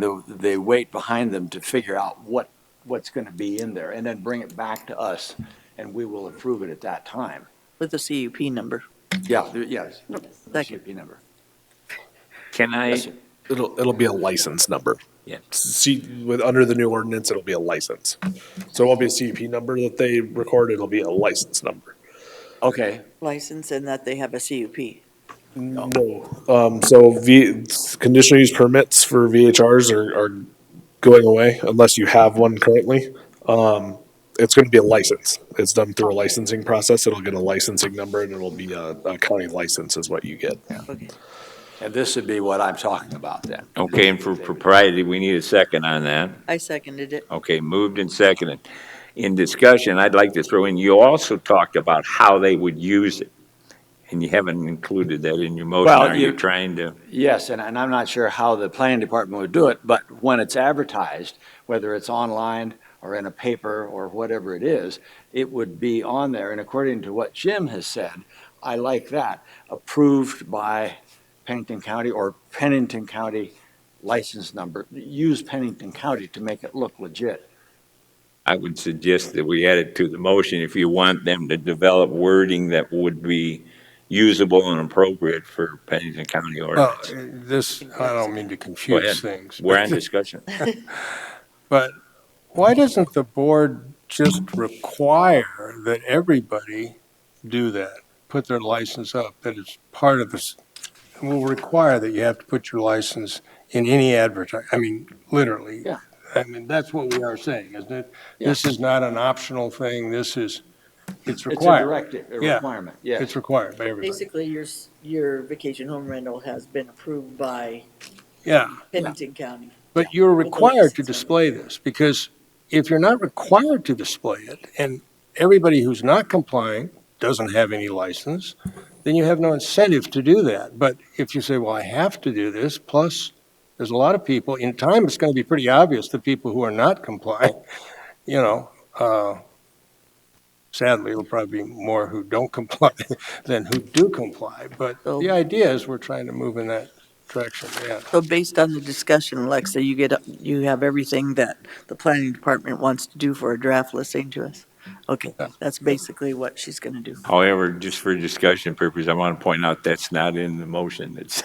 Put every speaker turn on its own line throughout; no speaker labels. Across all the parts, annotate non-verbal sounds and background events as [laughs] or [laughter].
the, they wait behind them to figure out what, what's going to be in there and then bring it back to us and we will approve it at that time.
with the CUP number.
Yeah, there- yes.
Second.
CUP number.
Can I,
Yes, sir.
It'll, it'll be a license number.
Yeah.
See, with, under the new ordinance, it'll be a license. So it won't be a CUP number that they record, it'll be a license number.
Okay,
License and that they have a CUP.
No, um, so V, conditional use permits for VHRs are, are going away unless you have one currently. Um, it's gonna be a license. It's done through a licensing process. It'll get a licensing number and it'll be a, a county license is what you get.
Okay.
and this would be what I'm talking about then.
okay, and for propriety, we need a second on that.
I seconded it.
Okay, moved and seconded. In discussion, I'd like to throw in, you also talked about how they would use it. And you haven't included that in your motion.
Well,
Are you
you-
trying to?
Yes, and, and I'm not sure how the planning department would do it, but when it's advertised, whether it's online or in a paper or whatever it is, it would be on there. And according to what Jim has said, I like that, approved by Pennington County or Pennington County license number. Use Pennington County to make it look legit.
I would suggest that we add it to the motion if you want them to develop wording that would be usable and appropriate for Pennington County
Well, uh,
ordinance.
this, I don't mean to
Go ahead.
confuse things.
We're in
but-
discussion.
But why doesn't the board just require that everybody do that? Put their license up, that it's part of this, we'll require that you have to put your license in any advertise, I mean, literally.
Yeah.
I mean, that's what we are saying, isn't it? This is not an optional thing, this is, it's
It's a
required.
directive, a
Yeah.
requirement, yes.
It's required by everybody.
Basically, your, s- your vacation home rental has been approved by
Yeah.
Pennington County.
But you're
With the
required to
license, right.
display this, because if you're not required to display it, and everybody who's not complying doesn't have any license, then you have no incentive to do that. But if you say, well, I have to do this, plus, there's a lot of people, in time, it's gonna be pretty obvious, the people who are not complying, [laughs] you know, uh, sadly, it'll probably be more who don't [laughs] comply than who do comply. But
So-
the idea is we're trying to move in that direction, yeah.
So based on the discussion, Alexa, you get, you have everything that the planning department wants to do for a draft listing to us? Okay, that's basically what she's gonna
[laughs]
do.
However, just for discussion purposes, I want to point out that's not in the motion. It's,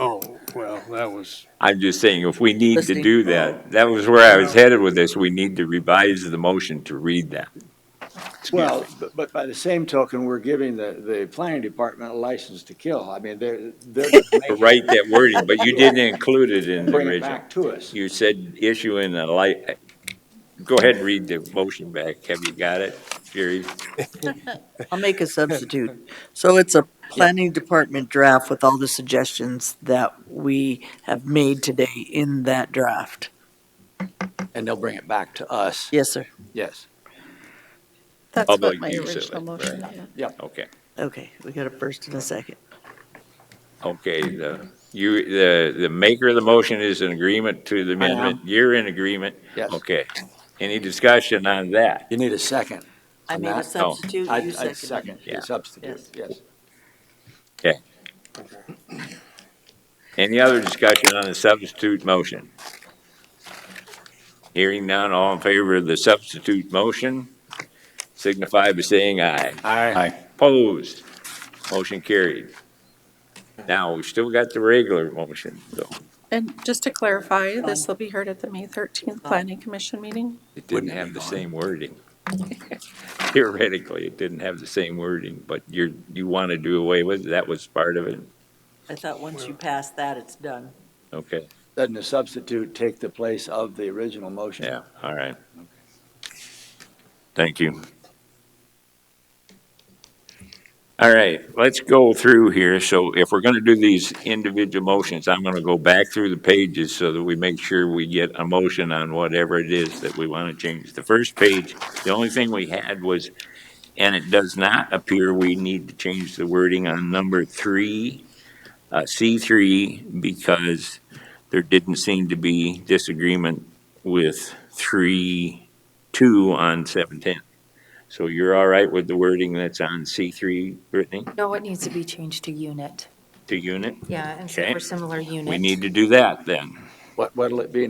Oh, well, that was.
I'm just saying, if we need to
Listening.
do that, that was where I was headed with this. We need to revise the motion to read that.
Well, but- but by the same token, we're giving the, the planning department a license to kill. I mean, they're, they're
To Write that wording, but
[laughs]
you didn't include it in the
bringing it
original.
back to us.
You said issuing a light, go ahead and read the motion back. Have you got it, Jerry?
I'll make a substitute. So it's a planning department draft with all the suggestions that we have made today in that draft.
And they'll bring it back to us,
Yes, sir.
yes.
That's
Public
what my
use of
original
it,
motion is.
Okay,
Okay, we got a first and a second.
okay, the, you, the, the maker of the motion is in agreement to the amendment. You're in agreement?
Yes.
Okay. Any discussion on that?
You need a second.
I
On
made a
that?
No.
substitute,
I-
you
I'd
seconded.
Yeah.
Second, substitute, yes.
Any other discussion on the substitute motion? Hearing none, all in favor of the substitute motion, signify by saying aye.
Aye.
Opposed, motion carried. Now, we still got the regular motion, though.
And just to clarify, this will be heard at the May 13th Planning Commission meeting.
It didn't have the same wording. [laughs] Theoretically, it didn't have the same wording, but you're, you want to do away with, it. that was part of it,
I thought once you pass that, it's done.
okay,
Doesn't the substitute take the place of the original motion?
yeah, all right. Thank you. All right, let's go through here, so if we're going to do these individual motions, I'm going to go back through the pages so that we make sure we get a motion on whatever it is that we want to change. The first page, the only thing we had was And it does not appear we need to change the wording on number three, uh, C three, because there didn't seem to be disagreement with three, two on seven ten. So you're all right with the wording that's on C three, Brittany,
No, it needs to be changed to unit.
to unit?
Yeah, and so
Okay.
for similar unit.
We need to do that then.
What, what'll it be